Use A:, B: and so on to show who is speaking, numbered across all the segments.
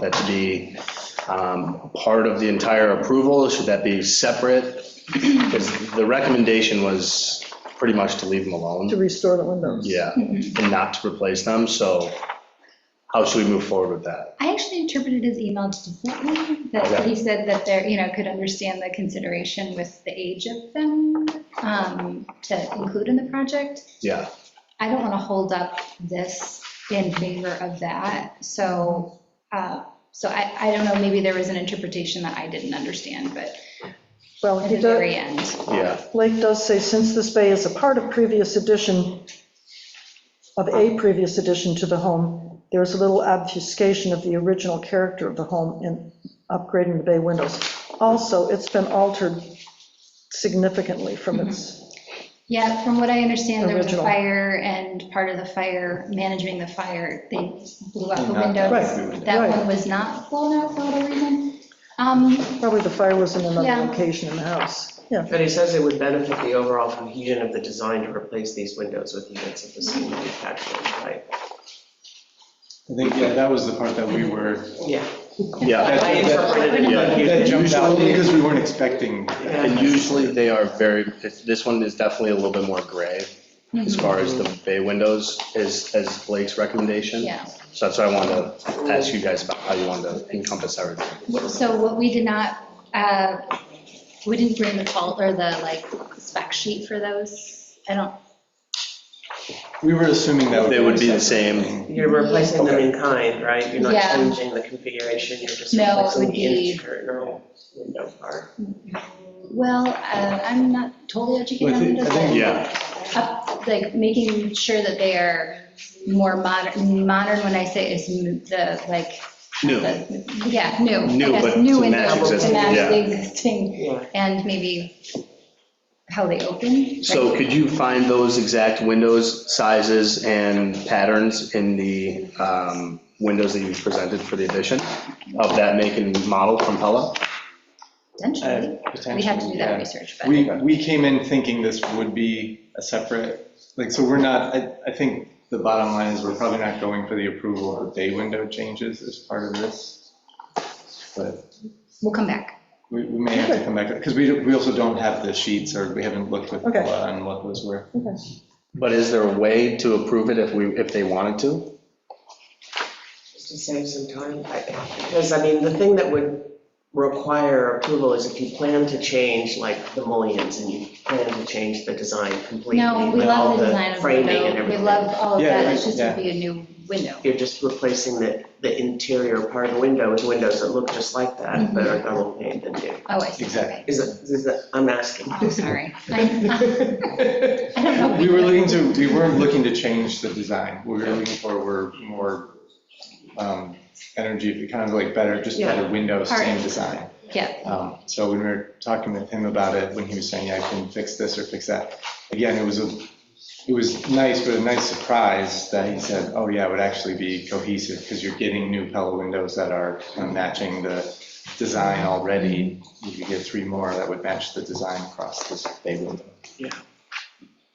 A: that to be um, part of the entire approval? Should that be separate? Because the recommendation was pretty much to leave them
B: to
A: alone,
B: restore the windows.
A: yeah, and not to replace them, so how should we move forward with that?
C: I actually interpreted his email differently, that
A: Okay.
C: he said that they're, you know, could understand the consideration with the age of them um, to include in the project.
A: Yeah,
C: I don't want to hold up this in favor of that, so, uh, so I, I don't know, maybe there was an interpretation that I didn't understand, but
B: Well,
C: at
B: he
C: the
B: does,
C: very end.
A: yeah,
B: Blake does say, since this bay is a part of previous addition, of a previous addition to the home, there is a little obfuscation of the original character of the home in upgrading the bay windows. Also, it's been altered significantly from its,
C: Yeah, from what I understand, there was a
B: Original.
C: fire and part of the fire, managing the fire, they blew out the
D: Knocked out
C: windows.
B: Right,
C: That
B: right.
C: one was not blown out for whatever reason. Um,
B: probably the fire was in another
C: Yeah.
B: location in the house. Yeah,
E: But he says it would benefit the overall cohesion of the design to replace these windows with units of the same manufacturing type.
D: I think, yeah, that was the part that we were,
E: Yeah.
A: yeah.
E: I interpreted it like you
D: that
E: did.
D: jumped out because we weren't expecting.
E: Yeah.
A: And usually they are very, this one is definitely a little bit more gray
C: hmm,
A: as far as the bay windows is, as Blake's recommendation.
C: yeah,
A: So that's why I wanted to ask you guys about how you wanted to encompass everything.
C: so what we did not, uh, we didn't bring the fault or the like spec sheet for those. I don't,
D: We were assuming that would.
A: They would be the
D: a separate
A: same.
D: thing.
E: You're replacing them in kind, right? You're not
C: Yeah.
E: changing the configuration, you're just
C: No, it
E: replacing
C: would
E: the
C: be-
E: internal window part.
C: well, uh, I'm not totally educated
D: Well,
C: on
D: I think- I
C: this.
D: think-
A: Yeah,
C: up, like making sure that they are more modern, modern when I say is m- the, like,
A: new,
C: the- yeah, new. I
A: New,
C: guess,
A: but
C: new
A: to
C: and
A: match
C: double to
A: existing,
C: match
A: yeah.
C: the existing,
E: Yeah.
C: and maybe how they open.
A: So
C: right?
A: could you find those exact windows, sizes, and patterns in the um, windows that you presented for the addition of that make and model from Pella?
C: Potentially,
D: Uh,
C: we have to do
D: potentially, yeah.
C: that research, but.
D: We, we came in thinking this would be a separate, like, so we're not, I, I think the bottom line is we're probably not going for the approval of day window changes as part of this. But
C: We'll come back.
D: we, we may have to come back, because we, we also don't have the sheets or we haven't looked with,
B: Okay.
D: Paula on what those were.
B: okay.
A: But is there a way to approve it if we, if they wanted to?
E: To save some time, I- because I mean, the thing that would require approval is if you plan to change like the mullions and you plan to change the design completely.
C: No, we
E: with all
C: love the design of the
E: framing and
C: window. We
E: everything.
C: love all of
D: Yeah,
C: that.
D: yeah,
C: It's just
D: yeah.
C: gonna be a new window.
E: You're just replacing the, the interior part of the window with windows that look just like that, but are double pane than do.
C: Oh, I see.
D: Exactly.
C: Okay.
E: Is it, is it, I'm asking.
C: I'm sorry. I I don't know.
D: We were looking to, we weren't looking to change the design. What we were looking for were more um, energy, kind of like better, just better windows, same
C: Alright.
D: design.
C: Yeah,
D: Um, So when we were talking with him about it, when he was saying, yeah, I can fix this or fix that, again, it was a, it was nice, but a nice surprise that he said, oh yeah, it would actually be cohesive because you're getting new Pella windows that are kind of matching the design already. You could get three more that would match the design across this bay window.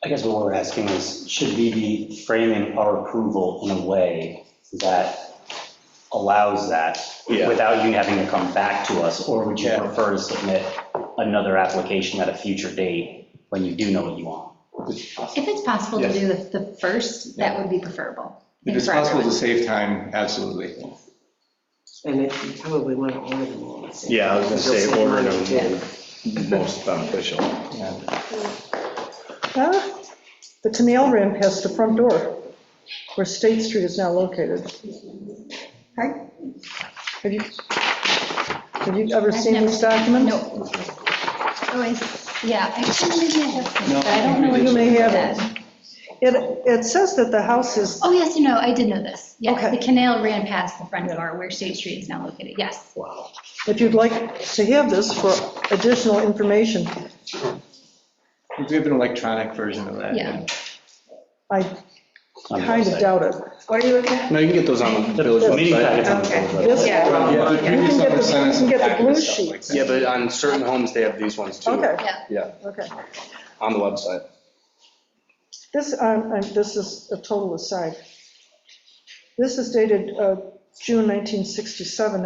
F: I guess what we're asking is, should we be framing our approval in a way that allows that
A: Yeah.
F: without you having to come back to us? Or would you
D: Yeah.
F: prefer to submit another application at a future date when you do know what you want?
C: if it's possible to
D: Yes.
C: do the, the first, that would be preferable. I
D: If
C: think
D: it's
C: for
D: possible to
C: everyone.
D: save time, absolutely.
E: And it you probably want to order them all.
A: Yeah, I was gonna say
E: You'll save
A: order
E: money, too.
A: them most beneficial.
D: Yeah.
B: Ah, The canal ran past the front door where State Street is now located.
C: Pardon?
B: Have you, have you ever
C: I've
B: seen this document?
C: No. Oh, I, s- yeah, actually, maybe I have seen,
D: No,
C: it, but I don't know what
B: you
C: you
B: may have it.
C: said.
B: It, it says that the house is,
C: Oh, yes, you know, I did know this. Yes,
B: Okay.
C: the canal ran past the front door where State Street is now located, yes.
A: Wow.
B: if you'd like to have this for additional information,
D: We have an electronic version of that.
C: Yeah.
B: I
F: on the
B: kind of
F: website?
B: doubt it.
G: What are you looking at?
A: No, you can get those on the village
F: The meeting
A: website.
F: packets on the
G: Okay.
F: website.
B: This,
G: Yeah.
D: Yeah, the previous
B: You can get
D: owner
B: the-
D: sent us
B: you can get the
D: a packet of
B: blue
D: stuff like
B: sheets.
D: that.
A: Yeah, but on certain homes, they have these ones too.
B: okay,
A: Yeah,
B: okay.
A: on the website.
B: This, um, um, this is a total aside. This is dated uh, June 1967